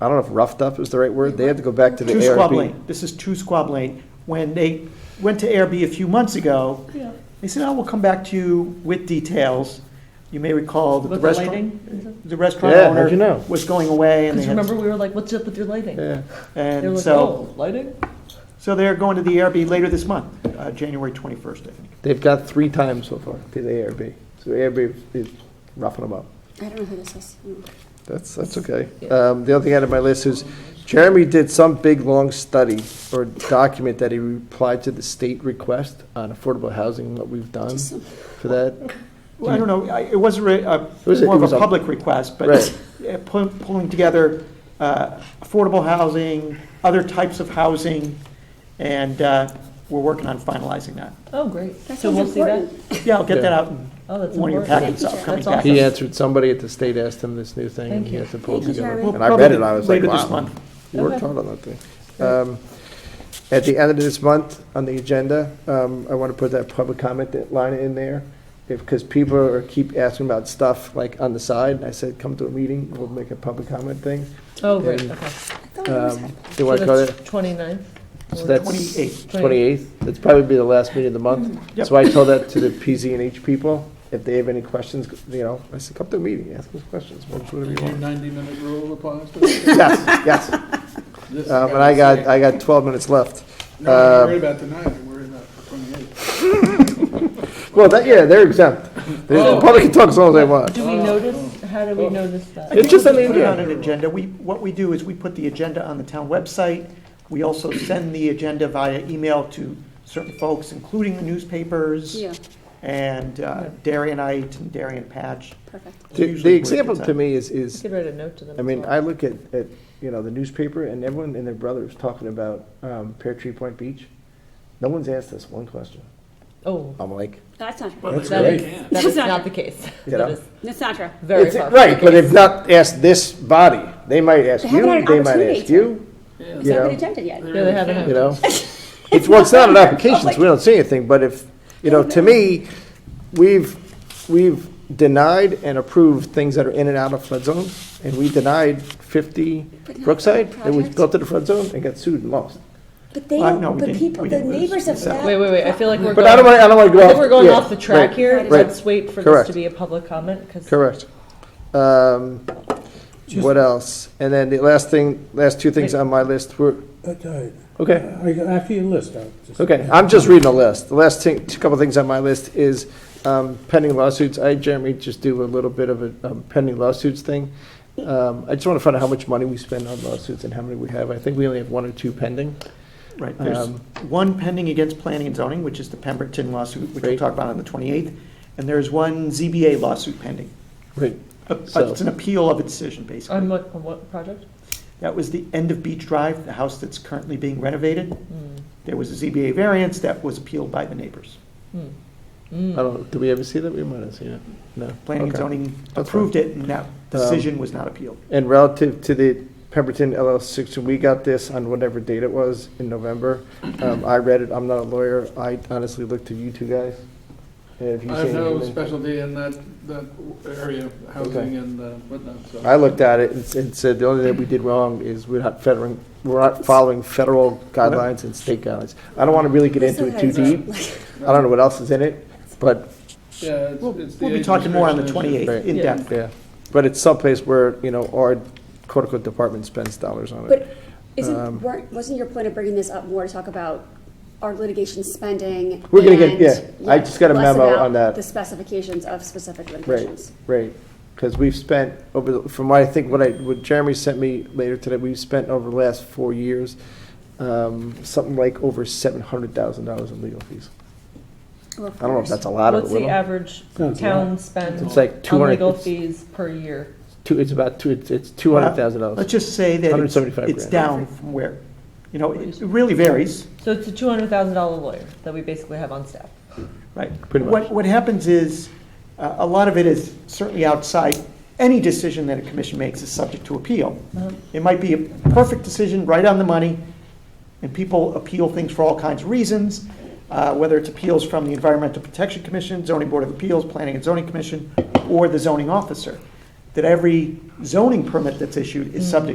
I don't know if roughed up is the right word, they had to go back to the Two Squab ARB. Lane, this is Two Squab Lane. When they went to ARB a few months ago, Yeah. they said, oh, we'll come back to you with details. You may recall that the With the restaurant, lighting? the restaurant Yeah, how'd you owner know? was going away and they Because remember, had, we were like, what's up with your lighting? Yeah, They were and like, so, oh, lighting? so they're going to the ARB later this month, uh, January 21st, I think. they've got three times so far to the ARB, so ARB is roughing them up. I don't know who this is. Um, Mm. That's, that's okay. Yeah. Um, The other thing out of my list is Jeremy did some big, long study or document that he replied to the state request on affordable housing, what we've done Just some- for that. Well, I don't know, I- it was a re- a- was a- more it of was a a- public request, but Right. uh, pull- pulling together uh, affordable housing, other types of housing, and uh, we're working on finalizing that. Oh, great. That So sounds we'll see that. important. Yeah, I'll get that Yeah. out in Oh, that's one of your important. packets, Thank you, upcoming Jack. That's packets. He answered, somebody at the state asked him this new thing, and Thank he you. had to pull it Thank you, together. Jeremy. We'll And I read probably it, I was like, Later this wow. month. You worked Okay. hard on that thing. Okay. Um, At the end of this month, on the agenda, um, I want to put that public comment that line in there, because people are, keep asking about stuff like on the side. I said, come to a meeting, we'll make a public comment thing. Oh, great, And, okay. I thought we always Um, had that. They So want to go that's to, 29th? so or that's 28th. 28th, that's probably be the last meeting of the month. Yep. So I told that to the PZ and H people, if they have any questions, you know, I said, come to a meeting, ask us questions, whatever you The want. ninety-minute rule applies to this? Yes, yes. This is Um, And I got, I got 12 minutes left. No, I'm um, worried about the nine, I'm worried about the twenty-eight. Well, that, yeah, they're exempt. They- The Oh. public can talk as long as they want. Do we notice, how do we Oh. notice that? It's just I an think we put it on agenda. an agenda. We, what we do is we put the agenda on the town website. We also send the agenda via email to certain folks, including the newspapers. Yeah, and uh, Yeah. Darianite and Darian Patch. perfect. The- Usually The where it example gets to out. me is, We is, could write a note to them. I as mean, well. I look at, at, you know, the newspaper and everyone and their brother is talking about um, Pear Tree Point Beach. No one's asked us one question. Oh, I'm like, That's not true. Well, That's that great. is, that is not the case. You That know? is That's not true. very It's- far. from Right, the but case. if not asked this body, they might ask They haven't had you, they an might opportunity ask to. you, It's you not been know, agended yet. Yeah, they haven't. you know? It's, well, it's not an application, so we don't say anything, but if, you know, to me, we've, we've denied and approved things that are in and out of flood zone, and we denied 50 But not Brookside, that was projects. built to the flood zone and got sued and lost. But they, Uh, no, don't- we but didn't- people, we the didn't. neighbors of that. Wait, wait, wait, I feel like we're But I don't going, want, I don't want to I go off. think we're going yeah, off the track right, here. right. Let's wait for this Correct. to be a public comment, because Correct. Um, What else? And then the last thing, last two things on my list were, That's all right. Uh, okay. I- After you list, I'll just. Okay, I'm just reading a list. The last thing, two couple things on my list is um, pending lawsuits. I generally just do a little bit of a um, pending lawsuits thing. Um, I just want to find out how much money we spend on lawsuits and how many we have. I think we only have one or two pending. Right, there's Um, one pending against planning and zoning, which is the Pemberton lawsuit, which we'll Right. talk about on the 28th, and there's one ZBA lawsuit pending. Right. Uh, uh, So- It's an appeal of a decision, on basically. what, on what project? That was the end of Beach Drive, the house that's currently being renovated. Hmm. There was a ZBA variance that was appealed by the neighbors. Hmm. I don't, did we ever see that? We might have seen it. No. Planning and Okay. zoning fine. Um, approved it, and that decision was not appealed. And relative to the Pemberton LLC, so we got this on whatever date it was in November. Um, I read it. I'm not a lawyer. I honestly looked to you two guys. Have you I have seen no anything? specialty in that, that area, housing and uh, whatnot, so. I looked at it and s- and said, the only thing we did wrong is we're not federing, we're not following federal guidelines and state guidelines. I don't want to really get into it too deep. I don't know what else is in it, but, Yeah, it's, We'll it's the. we'll be age talking more on the restriction issue. 28th in Right. depth. yeah. But it's someplace where, you know, our quote unquote department spends dollars on it. But isn't, Um, weren't, wasn't your point of bringing this up more to talk about our litigation spending? We're gonna get- and- yeah, I just got a less memo about on that. The specifications of specific Right, litigations. right. Because we've spent over, the- from what I think, what I, what Jeremy sent me later today, we've spent over the last four years, um, something like over seven hundred thousand dollars in legal fees. Or I don't know if fours. that's a lot or a What's the little. average Sounds town spend It's like two on hundred. legal fees per year? Two, it's about two, it's, it's two hundred thousand dollars. Let's just say that it's, 175 it's grand. down from where, you know, it it really varies, So it's a $200,000 lawyer that we basically have on staff. right? Pretty much. What, what happens is, uh, a lot of it is certainly outside, any decision that a commission makes is subject to appeal. It might be a perfect decision, right on the money, and people appeal things for all kinds of reasons, uh, whether it's appeals from the Environmental Protection Commission, Zoning Board of Appeals, Planning and Zoning Commission, or the zoning officer, that every zoning permit that's issued is subject